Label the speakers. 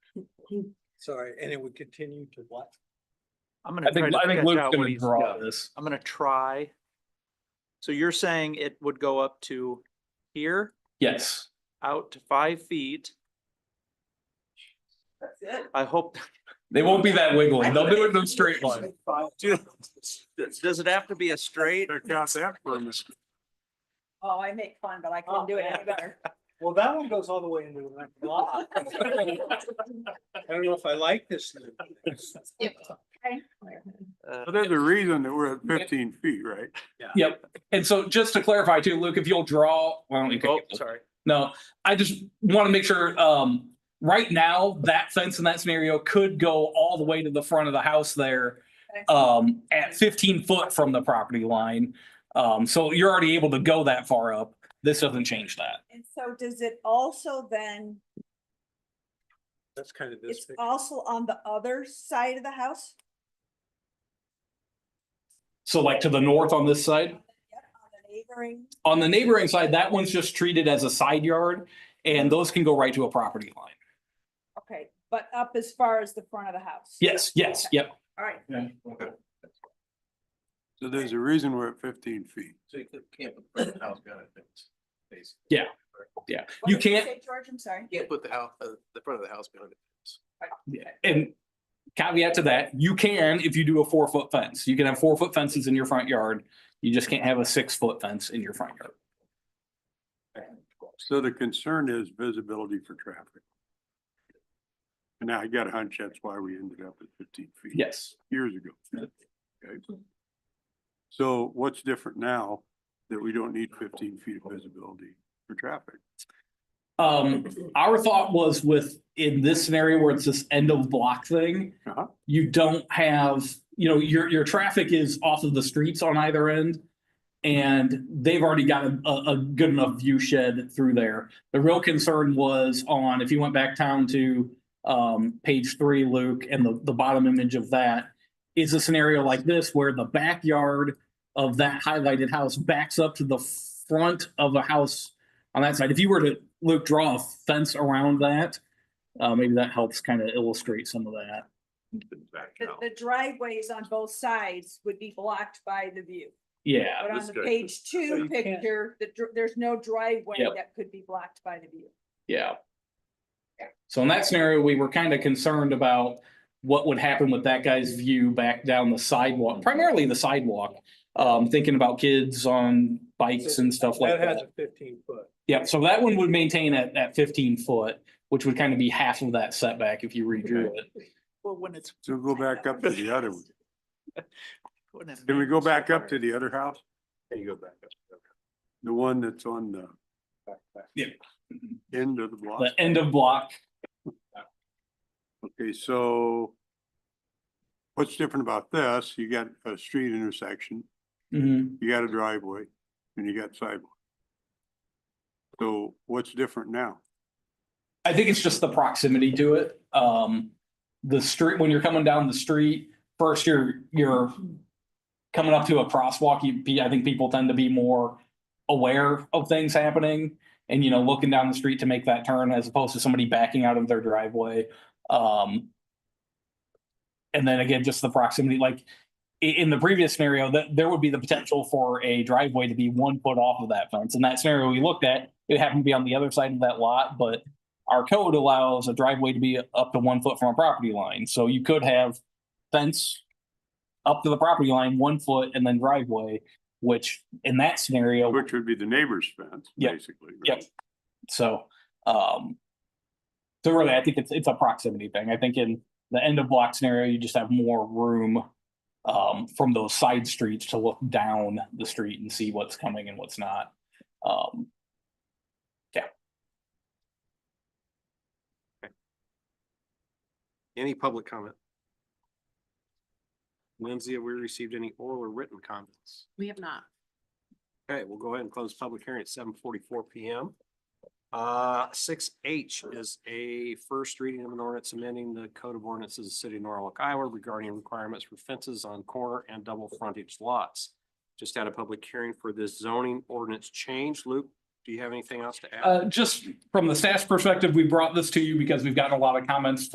Speaker 1: Sorry, and it would continue to what?
Speaker 2: I'm
Speaker 3: I
Speaker 2: gonna try
Speaker 3: think,
Speaker 2: to
Speaker 3: I think
Speaker 2: catch
Speaker 3: Luke's
Speaker 2: out what
Speaker 3: gonna
Speaker 2: he's,
Speaker 3: draw
Speaker 2: yeah,
Speaker 3: this.
Speaker 2: I'm gonna try. So you're saying it would go up to here,
Speaker 3: Yes,
Speaker 2: out to five feet.
Speaker 4: That's it.
Speaker 2: I hope,
Speaker 3: they won't be that wiggling. They'll do it in a straight line.
Speaker 2: does does it have to be a straight?
Speaker 4: Oh, I make fun, but I couldn't do it any better.
Speaker 1: Well, that one goes all the way into the next block. I don't know if I like this.
Speaker 2: Uh,
Speaker 5: But there's a reason that we're at fifteen feet, right?
Speaker 3: Yep. And so just to clarify too, Luke, if you'll draw, well, you
Speaker 2: Oh,
Speaker 3: can-
Speaker 2: sorry.
Speaker 3: no, I just want to make sure, um, right now, that fence in that scenario could go all the way to the front of the house there. um, at fifteen foot from the property line. Um, so you're already able to go that far up. This doesn't change that.
Speaker 4: And so does it also then,
Speaker 1: That's kind of this.
Speaker 4: it's
Speaker 1: thing.
Speaker 4: also on the other side of the house?
Speaker 3: So like to the north on this side,
Speaker 4: Yep, on the neighboring,
Speaker 3: on the neighboring side, that one's just treated as a side yard and those can go right to a property line.
Speaker 4: okay, but up as far as the front of the house?
Speaker 3: Yes, yes, yep.
Speaker 4: All right,
Speaker 5: So there's a reason we're at fifteen feet.
Speaker 6: So you could- can't put the house behind a fence, basically.
Speaker 4: What
Speaker 3: You
Speaker 4: did
Speaker 3: can't-
Speaker 4: say, George, I'm sorry.
Speaker 6: Can't put the house, uh, the front of the house behind it.
Speaker 3: And caveat to that, you can, if you do a four foot fence, you can have four foot fences in your front yard. You just can't have a six foot fence in your front yard.
Speaker 5: So the concern is visibility for traffic. And I got a hunch that's why we ended up at fifteen feet.
Speaker 3: Yes.
Speaker 5: Years ago. Okay. So what's different now that we don't need fifteen feet of visibility for traffic?
Speaker 3: Um, our thought was with, in this scenario where it's this end of block thing.
Speaker 5: Uh-huh.
Speaker 3: You don't have, you know, your, your traffic is off of the streets on either end. And they've already got a, a, a good enough view shed through there. The real concern was on, if you went back down to. Um, page three, Luke, and the, the bottom image of that is a scenario like this where the backyard. Of that highlighted house backs up to the front of a house on that side. If you were to, Luke, draw a fence around that, uh, maybe that helps kind of illustrate some of that.
Speaker 4: The, the driveways on both sides would be blocked by the view.
Speaker 3: Yeah,
Speaker 4: But on
Speaker 6: this
Speaker 4: the
Speaker 6: guy-
Speaker 4: page two
Speaker 1: you can't-
Speaker 4: picture, the, dr- there's no driveway
Speaker 3: Yep.
Speaker 4: that could be blocked by the view.
Speaker 3: yeah. So in that scenario, we were kind of concerned about what would happen with that guy's view back down the sidewalk, primarily the sidewalk. Um, thinking about kids on bikes and stuff like
Speaker 1: That has
Speaker 3: that.
Speaker 1: a fifteen foot.
Speaker 3: Yeah, so that one would maintain at, at fifteen foot, which would kind of be half of that setback if you redrew it.
Speaker 2: Well, when it's.
Speaker 5: So go back up to the other one.
Speaker 2: when it's-
Speaker 5: Can we go back up to the other house?
Speaker 6: There you go back up.
Speaker 5: The one that's on the
Speaker 3: Yeah.
Speaker 5: end of the block?
Speaker 3: The end of block,
Speaker 5: Okay, so what's different about this? You got a street intersection,
Speaker 3: Mhm.
Speaker 5: you got a driveway, and you got sidewalk. So what's different now?
Speaker 3: I think it's just the proximity to it. Um, the street, when you're coming down the street, first you're, you're coming up to a crosswalk, you be, I think people tend to be more aware of things happening and, you know, looking down the street to make that turn as opposed to somebody backing out of their driveway. Um, and then again, just the proximity, like i- in the previous scenario, that there would be the potential for a driveway to be one foot off of that fence. In that scenario we looked at, it happened to be on the other side of that lot, but our code allows a driveway to be up to one foot from a property line, so you could have fence up to the property line, one foot, and then driveway, which in that scenario,
Speaker 5: Which would be the neighbor's fence,
Speaker 3: Yep.
Speaker 5: basically.
Speaker 3: Yep.
Speaker 5: right?
Speaker 3: so, um, so really, I think it's, it's a proximity thing. I think in the end of block scenario, you just have more room um, from those side streets to look down the street and see what's coming and what's not. Um,
Speaker 6: Any public comment? Lindsay, have we received any oral or written comments?
Speaker 7: We have not.
Speaker 6: Okay, we'll go ahead and close public hearing at seven forty-four PM. Uh, six H is a first reading of an ordinance amending the code of ordinances of the city of Norwalk, Iowa regarding requirements for fences on corner and double frontage lots. Just had a public hearing for this zoning ordinance change. Luke, do you have anything else to add?
Speaker 3: Uh, just from the staff's perspective, we brought this to you because we've gotten a lot of comments